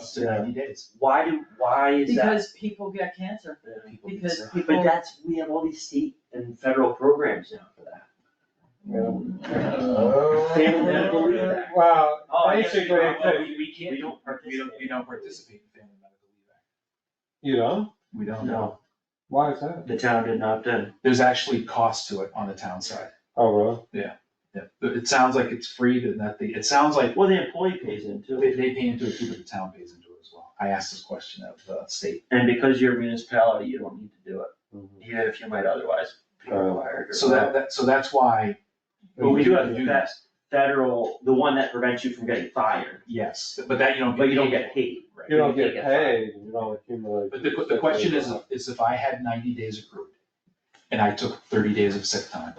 Up to Yeah. ninety days. Why do, why is that? Because people get cancer, People get because sick. But people, that's, we have all these state and federal programs now for that. Uh, Family medical leave act. Well, Oh, I guess we basically, don't- it's- we, we can't, we don't, we don't, we don't participate in family medical leave act. you know, We don't. No, why is that? the town did not uh, then. There's actually cost to it on the town side. Oh, really? Yeah. But It sounds like it's free, but that the, it sounds like Well, the employee pays in they, too. they pay into it too, but the town pays into it as well. I asked this question of the state. And because you're a municipality, you don't need to do it, Mm-hmm. even if you might otherwise be Uh, required. or- So that, that, so that's why. But we do have do that federal, the one that prevents you from getting fired, Yes, but that you don't. but you don't get paid. Right. You don't You get get paid, you don't accumulate. But the, the question is, is if I had ninety days accrued and I took thirty days of sick time,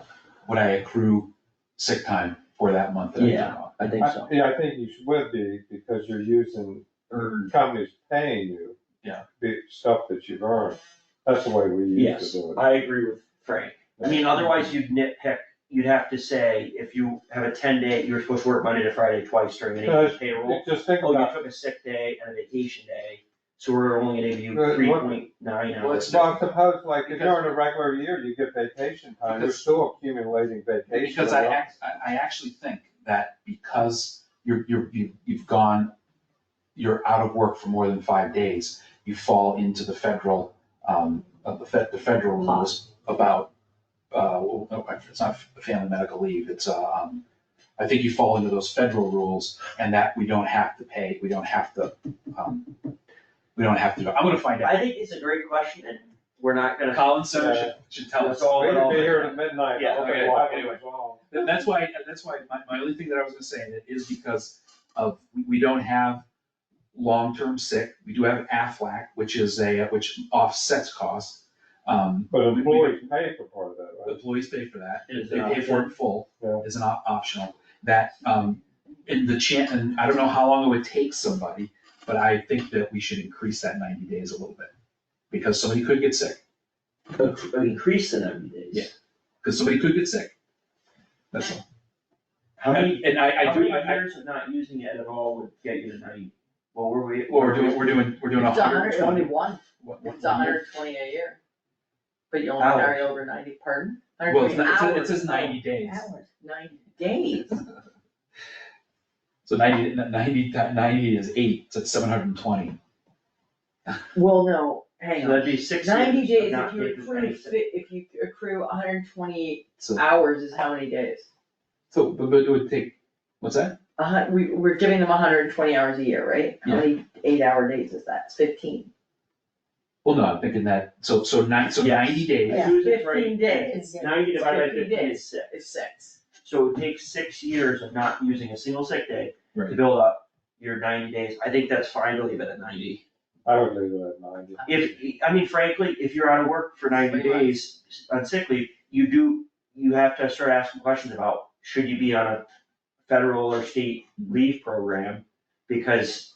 would I accrue sick time for that month that I took Yeah. off? I think I- so. Yeah, I think you should- would be, because you're using, Or, companies paying you. Yeah. The stuff that you've earned, that's the way we used Yes, to do it. I agree with Frank. I mean, otherwise you'd nitpick, you'd have to say, if you have a ten day, you're supposed to work Monday to Friday twice during any Uh, payroll. Just think Oh, you about, took a sick day and a vacation day, so we're only gonna give you Uh, three what- point nine Well, hours. it's- well, suppose like, if you're in a regular year, you get vacation time, you're Because- still accumulating vacation. because I right? act, I, I actually think that because you're, you're, you- you've gone, you're out of work for more than five days, you fall into the federal, um, of the fed, the federal rules about, uh, well, no, it's not family medical leave, it's, uh, um, I think you fall into those federal rules and that we don't have to pay, we don't have to, um, we don't have to, I'm gonna find out. I think it's a great question and we're not gonna. Colin Center should, should tell us. That's all We're in gonna all. be here to midnight. Yeah, I'm like, okay, why would anyway. we go? That- That's why, that's why, my, my only thing that I was gonna say is because of, we- we don't have long-term sick, we do have Aflac, which is a, uh, which offsets costs. Um, But we- we- employees pay for part of that, right? Employees pay for that, Is, they uh, pay for it in full, Yeah. is an op- optional, that, um, in the chan, and I don't know how long it would take somebody, but I think that we should increase that ninety days a little bit. Because somebody could get sick, inc- Increase the ninety days. Yeah. because somebody could get sick. That's all. How many, And I, I how do, many I, I- years of not using it at all would get you to ninety? Well, were we? Or we're doing, we're doing, we're doing a It's a hundred and hundred twenty. twenty-one, what- what- it's a hundred twenty a year, but you only Hours. carry over ninety, pardon? Well, it's not- it says- 120 it says hours. Oh. ninety days, Hours, ninety days, so 90 90 ti- 90 is eight, so it's seven hundred and twenty. well, no, So hang on, That'd be six years. ninety of days, not if you taking accrue, any fi- sick. if you accrue hundred and twenty So, hours is how many days? so, but, but it would take, what's that? A hun, we, we're giving them hundred and twenty hours a year, right? How Yeah. many eight-hour days is that, it's fifteen? Well, no, I'm thinking that, so, so nine, so Yes. ninety days, Yeah. Fifteen Susan's right. days, Ninety divided by 50 fifteen is days. six. it's six, So it would take six years of not using a single sick day to Right. build up your ninety days. I think that's fine to leave it at ninety. I would leave it at ninety. If, I mean frankly, if you're out of work for ninety Three days on sick leave, you do, you have to start asking questions about, should you be on a federal or state leave program? Because,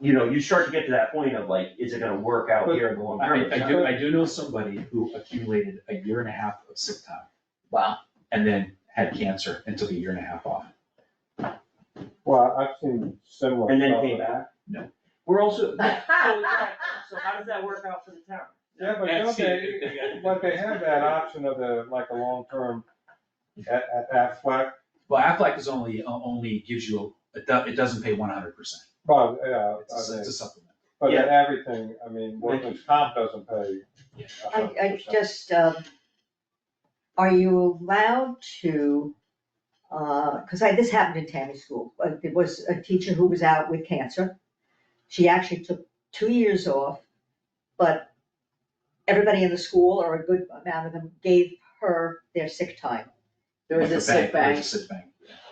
you know, you start to get to that point of like, is it gonna work out here in the long I, term? I do, I do know somebody who accumulated a year and a half of sick time wow, and then had cancer and took a year and a half off. Well, I've seen similar. And then stuff. came back? No. We're also, so, so how does that work out for the town? Yeah, but Yeah, don't see, they, but they have that option of the, like a long-term at, at that flat, Well, Aflac is only, uh, only gives you, a- it do- it doesn't pay one hundred percent, but, yeah, I it's a- think, it's a supplement. but Yeah. everything, I mean, workman's comp doesn't pay. Yeah. a I, hundred I percent. just, um, are you allowed to, uh, cause I, this happened in Tammy School, uh, there was a teacher who was out with cancer. She actually took two years off, but everybody in the school, or a good amount of them, gave her their sick time. there was Like a sick there bank. was a sick bank.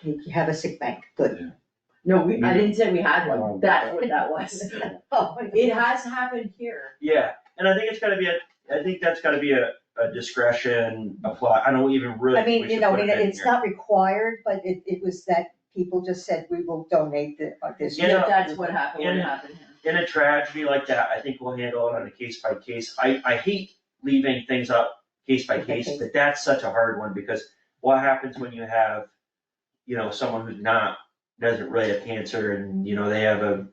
You have a sick bank, good. No, we, I didn't say we had Oh. one, that's what that was. Oh, It has happened here. Yeah, and I think it's gotta be a, I think that's gotta be a, a discretion apply, I don't even really I think we mean, you should know, put it it- in it's here. not required, but it, it was that people just said, we will donate the, uh, this. You know, If That's what happened, what in- happened here. In a tragedy like that, I think we'll handle it on a case by case, I, I hate leaving things up case by case, Okay. but that's such a hard one, because what happens when you have, you know, someone who's not, doesn't really have cancer and, you know, they have a